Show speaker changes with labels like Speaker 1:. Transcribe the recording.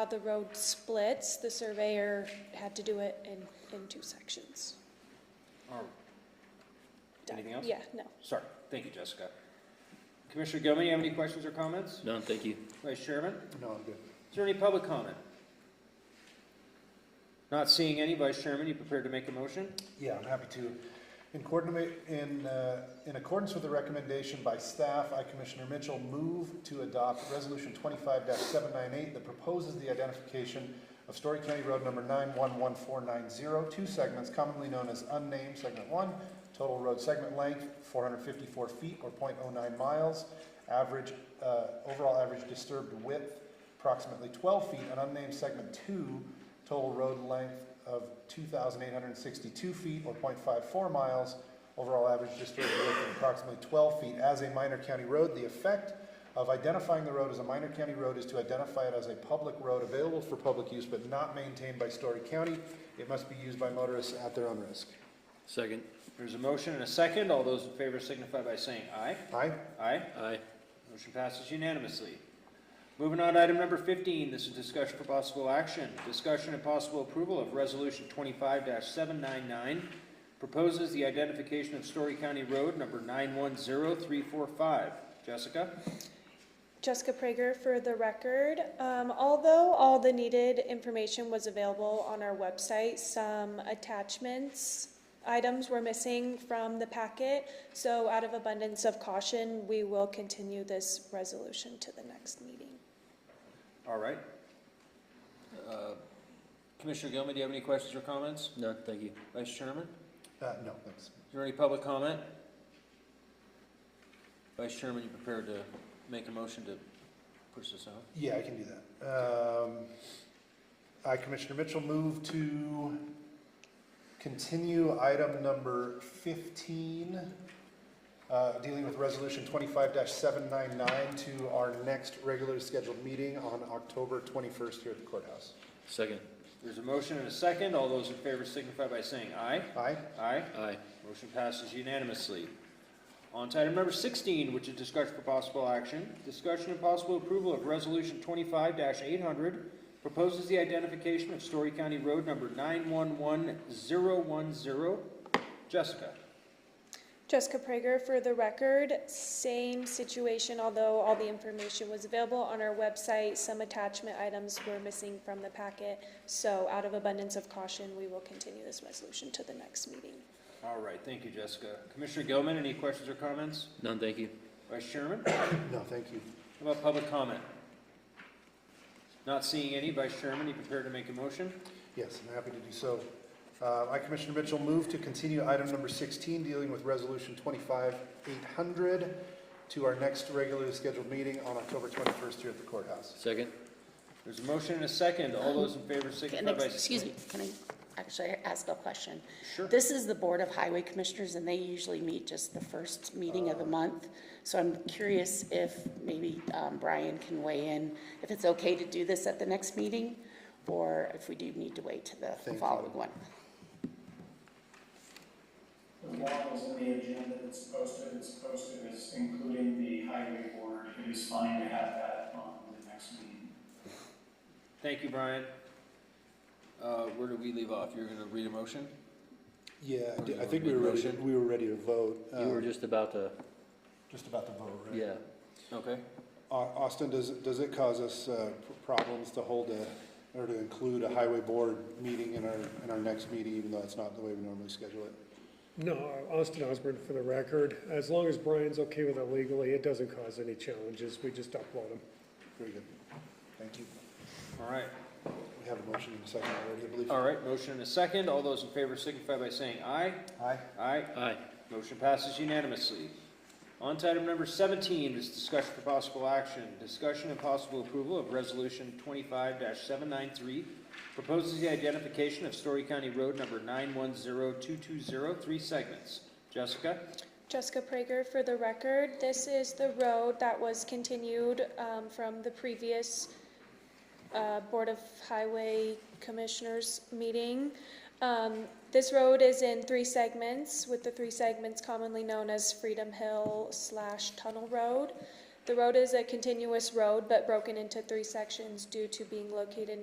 Speaker 1: How the road splits, the surveyor had to do it in, in two sections.
Speaker 2: Or-
Speaker 1: Done.
Speaker 2: Anything else?
Speaker 1: Yeah, no.
Speaker 2: Sorry, thank you, Jessica. Commissioner Gilman, you have any questions or comments?
Speaker 3: None, thank you.
Speaker 2: Vice Chairman,
Speaker 4: No, I'm good.
Speaker 2: is there any public comment? Not seeing any, Vice Chairman, you prepared to make a motion?
Speaker 4: Yeah, I'm happy to. In coordinate, in, uh, in accordance with the recommendation by staff, I, Commissioner Mitchell, move to adopt Resolution twenty-five seven nine eight that proposes the identification of Story County Road number nine one one four nine zero, two segments commonly known as unnamed segment one, total road segment length four hundred fifty-four feet or 0.09 miles, average, uh, overall average disturbed width approximately twelve feet, and unnamed segment two, total road length of 2,862 feet or .54 miles, overall average disturbed width of approximately 12 feet as a minor county road. The effect of identifying the road as a minor county road is to identify it as a public road available for public use but not maintained by Story County. It must be used by motorists at their own risk.
Speaker 3: Second,
Speaker 2: There's a motion and a second. All those in favor signify by saying aye.
Speaker 4: Aye?
Speaker 2: Aye.
Speaker 3: aye.
Speaker 2: Motion passes unanimously. Moving on to item number fifteen, this is discussion for possible action. Discussion and possible approval of resolution twenty-five seven nine nine proposes the identification of Story County Road number nine one zero three four five. Jessica?
Speaker 1: Jessica Prager for the record. Um, although all the needed information was available on our website, some attachments, items were missing from the packet. So out of abundance of caution, we will continue this resolution to the next meeting.
Speaker 2: All right. Uh, Commissioner Gilman, do you have any questions or comments?
Speaker 3: None, thank you.
Speaker 2: Vice Chairman,
Speaker 4: Uh, no, thanks.
Speaker 2: is there any public comment? Vice Chairman, you prepared to make a motion to push this out?
Speaker 4: Yeah, I can do that. Um, I, Commissioner Mitchell, move to continue item number fifteen, uh, dealing with resolution twenty-five seven nine nine to our next regularly scheduled meeting on October twenty-first here at the courthouse.
Speaker 3: Second,
Speaker 2: There's a motion and a second. All those in favor signify by saying aye.
Speaker 4: Aye?
Speaker 2: Aye.
Speaker 3: aye.
Speaker 2: Motion passes unanimously. On to item number sixteen, which is discussion for possible action. Discussion and possible approval of resolution twenty-five eight hundred proposes the identification of Story County Road number nine one one zero one zero. Jessica?
Speaker 1: Jessica Prager for the record, same situation, although all the information was available on our website, some attachment items were missing from the packet. So out of abundance of caution, we will continue this resolution to the next meeting.
Speaker 2: All right, thank you, Jessica. Commissioner Gilman, any questions or comments?
Speaker 3: None, thank you.
Speaker 2: Vice Chairman?
Speaker 4: No, thank you.
Speaker 2: How about public comment? Not seeing any. Vice Chairman, you prepared to make a motion?
Speaker 4: Yes, I'm happy to do so. Uh, I, Commissioner Mitchell, move to continue item number 16, dealing with Resolution 25-800, to our next regularly scheduled meeting on October 21st here at the courthouse.
Speaker 3: Second,
Speaker 2: There's a motion and a second. All those in favor
Speaker 5: Can
Speaker 2: signify
Speaker 5: I-
Speaker 2: by.
Speaker 5: Excuse me, can I actually ask a question?
Speaker 2: Sure.
Speaker 5: This is the Board of Highway Commissioners, and they usually meet just the first meeting of the month. So I'm curious if maybe um, Brian can weigh in, if it's okay to do this at the next meeting, or if we do need to wait to the
Speaker 4: you.
Speaker 5: following one.
Speaker 6: The law is in the agenda, it's posted, it's posted, it's including the highway board, it is fine to have that on the next meeting.
Speaker 2: Thank you, Brian. Uh, where do we leave off? You're gonna read a motion?
Speaker 4: Yeah,
Speaker 2: Or do you
Speaker 4: I think
Speaker 2: wanna make
Speaker 4: we were
Speaker 2: a
Speaker 4: ready,
Speaker 2: motion?
Speaker 4: we were ready to vote.
Speaker 3: you were
Speaker 4: um,
Speaker 3: just about to,
Speaker 4: Just about the vote, right?
Speaker 3: yeah.
Speaker 2: Okay.
Speaker 4: Au- Austin, does, does it cause us uh, p- problems to hold a, or to include a highway board meeting in our, in our next meeting, even though it's not the way we normally schedule it?
Speaker 7: No, Austin Osborne for the record. As long as Brian's okay with it legally, it doesn't cause any challenges. We just upload them.
Speaker 4: Very good. Thank you.
Speaker 2: All right,
Speaker 4: We have a motion in a second already, I believe.
Speaker 2: all right, motion and a second. All those in favor signify by saying aye.
Speaker 4: Aye?
Speaker 2: Aye.
Speaker 3: Aye.
Speaker 2: Motion passes unanimously. On to item number seventeen, is discussion for possible action. Discussion and possible approval of resolution twenty-five seven nine three proposes the identification of Story County Road number nine one zero two two zero, three segments. Jessica?
Speaker 1: Jessica Prager for the record, this is the road that was continued um, from the previous uh, Board of Highway Commissioners meeting. Um, This road is in three segments, with the three segments commonly known as Freedom Hill slash Tunnel Road. The road is a continuous road, but broken into three sections due to being located